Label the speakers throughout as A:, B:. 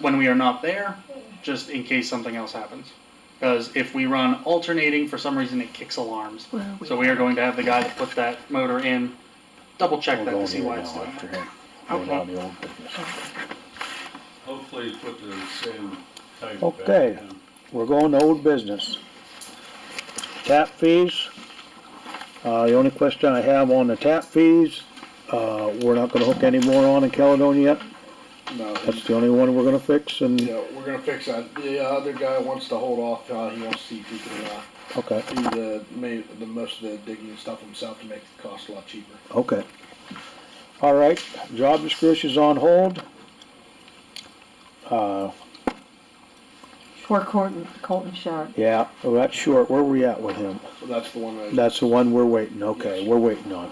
A: when we are not there, just in case something else happens. Because if we run alternating, for some reason it kicks alarms.
B: Well,
A: So we are going to have the guy that put that motor in, double check that to see why it's doing
C: After
A: that.
C: him. Going
A: Okay.
C: down the old business.
D: Hopefully you put the same type back
C: Okay.
D: in.
C: We're going to old business. Tap fees. Uh, the only question I have on the tap fees, uh, we're not gonna hook any more on in Caledonia yet.
E: No,
C: That's the only one we're gonna fix and,
E: yeah, we're gonna fix that. The uh, other guy wants to hold off, uh, he wants to see if he can, uh,
C: okay,
E: do the, ma- the most of the digging and stuff himself to make the cost a lot cheaper.
C: okay. All right, job description's on hold. Uh,
B: For Colton, Colton Sharp.
C: yeah, well, that's short. Where we at with him?
E: So that's the one that,
C: That's the one we're waiting, okay, we're waiting on.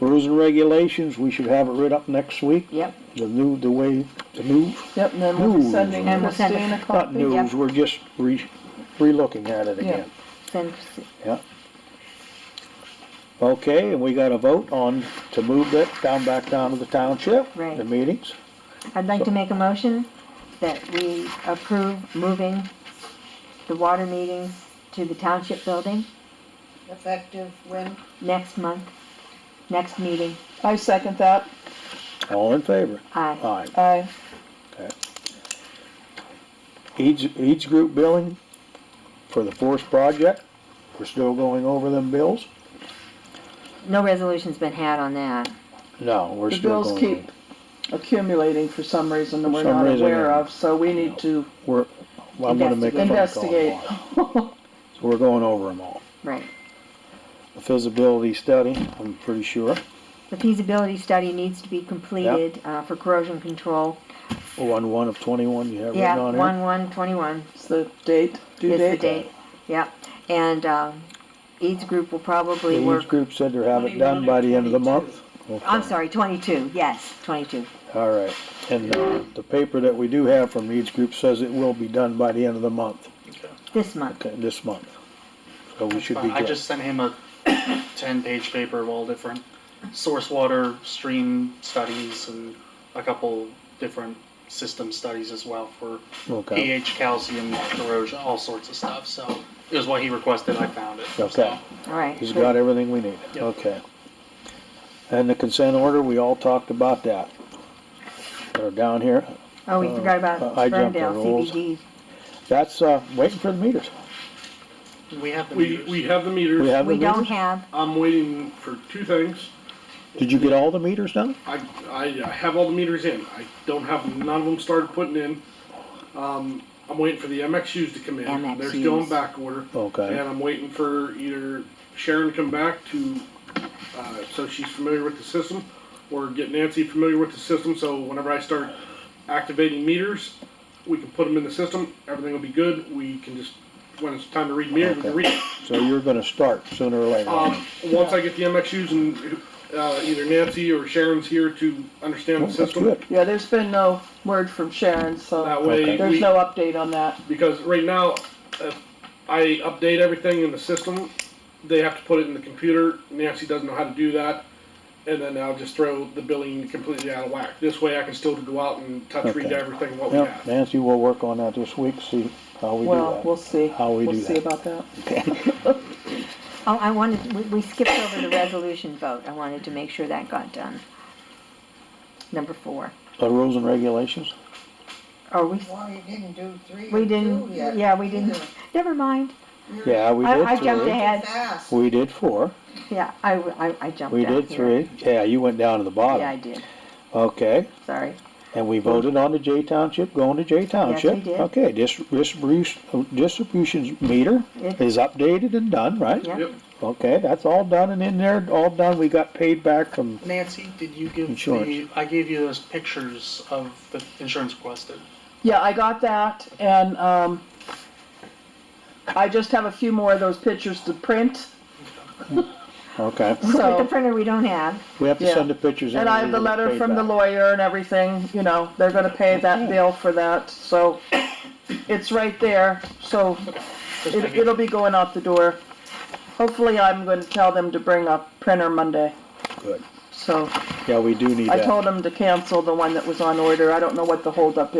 C: Rules and regulations, we should have it right up next week,
B: Yep,
C: the new, the way, the new
F: Yep, and then we're
C: Ooh.
F: sending
B: And we'll send it.
F: Christine a
C: Not
F: copy.
B: Yep.
C: news, we're just re, re-looking at it again.
B: send,
C: Okay, and we got a vote on to move that down, back down to the township,
B: Right.
C: the meetings.
B: I'd like to make a motion that we approve moving the water meetings to the township building
G: Effective when?
B: next month, next meeting.
F: I second that.
C: All in favor?
B: Aye.
C: Aye.
F: I,
C: Each, each group billing for the forest project, we're still going over them bills?
B: No resolution's been had on that.
C: No, we're
F: the
C: still
F: bills
C: going.
F: keep accumulating for some reason that
C: For
F: we're
C: some
F: not
C: reason,
F: aware
C: yeah.
F: of, so we need to
C: We're, I'm gonna make a phone call.
F: investigate.
C: tomorrow. So we're going over them all.
B: Right.
C: The feasibility study, I'm pretty sure,
B: The feasibility study needs to be completed uh, for corrosion control.
C: one, one of twenty-one, you have
B: Yeah,
C: written on
B: one
C: there?
B: one twenty-one
F: It's the date, due
B: is the
F: date.
B: date. Yep. And um, each group will probably work,
C: Each group said they'll have it done by the end of the month.
B: I'm sorry, twenty-two, yes, twenty-two.
C: All right, and uh, the paper that we do have from each group says it will be done by the end of the month,
B: This month.
C: okay, this month. So we should be
A: Fine. I
C: good.
A: just sent him a ten-page paper of all different source water stream studies and a couple different system studies as well for
C: Okay,
A: pH, calcium, corrosion, all sorts of stuff. So it was what he requested. I found it.
C: okay,
A: So,
B: All right.
C: he's got everything we need,
A: Yep.
C: okay. And the consent order, we all talked about that. They're down here,
B: Oh, we forgot about
C: Uh, I jumped the
B: Ferndale
C: rules.
B: CBD.
C: that's, uh, waiting for the meters.
A: we have the
H: We,
A: meters.
H: we have the
C: We
H: meters.
C: have the
B: We don't
C: meters?
B: have,
H: I'm waiting for two things.
C: Did you get all the meters done?
H: I, I uh, have all the meters in. I don't have, none of them started putting in. Um, I'm waiting for the MXUs to come in. They're still
B: MXUs.
H: in back order.
C: Okay.
H: And I'm waiting for either Sharon to come back to, uh, so she's familiar with the system, or get Nancy familiar with the system, so whenever I start activating meters, we can put them in the system, everything will be good, we can just, when it's time to read meters, we can
C: Okay.
H: read.
C: So you're gonna start sooner or later.
H: Um, once I get the MXUs and, uh, either Nancy or Sharon's here to understand
C: Oh,
H: the
C: That's
H: system.
C: good.
F: Yeah, there's been no word from Sharon,
H: That
F: so
H: way,
C: Okay.
F: there's
H: we,
F: no update on that.
H: because right now, if I update everything in the system, they have to put it in the computer. Nancy doesn't know how to do that, and then I'll just throw the billing completely out of whack. This way, I can still go out and touch read
C: Okay.
H: everything what we
C: Yeah,
H: have.
C: Nancy will work on that this week, see how we do that.
F: Well, we'll see.
C: How we do
F: We'll see
C: that.
F: about that.
B: oh, I wanted, we- we skipped over the resolution vote. I wanted to make sure that got done. Number four.
C: The rules and regulations?
B: Are we,
G: Well, you didn't do three
B: we
G: or two
B: didn't,
G: yet.
B: yeah, we didn't,
G: either.
B: never mind.
G: You're
C: Yeah, we
B: I- I
C: did
B: jumped
C: three.
G: too
B: ahead.
G: fast.
C: We did four.
B: Yeah, I, I, I jumped
C: We
B: down
C: did
B: here.
C: three. Yeah, you went down to the
B: Yeah, I
C: bottom.
B: did,
C: Okay,
B: sorry.
C: and we voted on the J Township, going to J Township.
B: did.
C: Okay, dis- distribution, distribution meter
B: It-
C: is updated and done, right?
B: Yeah.
H: Yep.
C: Okay, that's all done and in there, all done. We got paid back from,
A: Nancy, did you give
C: Insurance.
A: the? I gave you those pictures of the insurance requested.
F: Yeah, I got that, and, um, I just have a few more of those pictures to print,
C: okay.
B: With the
F: so,
B: printer we don't have,
C: We have to
F: Yeah.
C: send the pictures in.
F: and I have
C: we
F: the
C: get
F: letter
C: paid
F: from the
C: Mm, back.
F: lawyer and everything, you know, they're gonna pay that bill for that, so it's right there, so
A: Just
F: it,
A: making-
F: it'll be going out the door. Hopefully, I'm gonna tell them to bring a printer Monday,
C: Good.
F: so
C: Yeah, we do need
F: I
C: that.
F: told them to cancel the one that was on order, I don't know what the holdup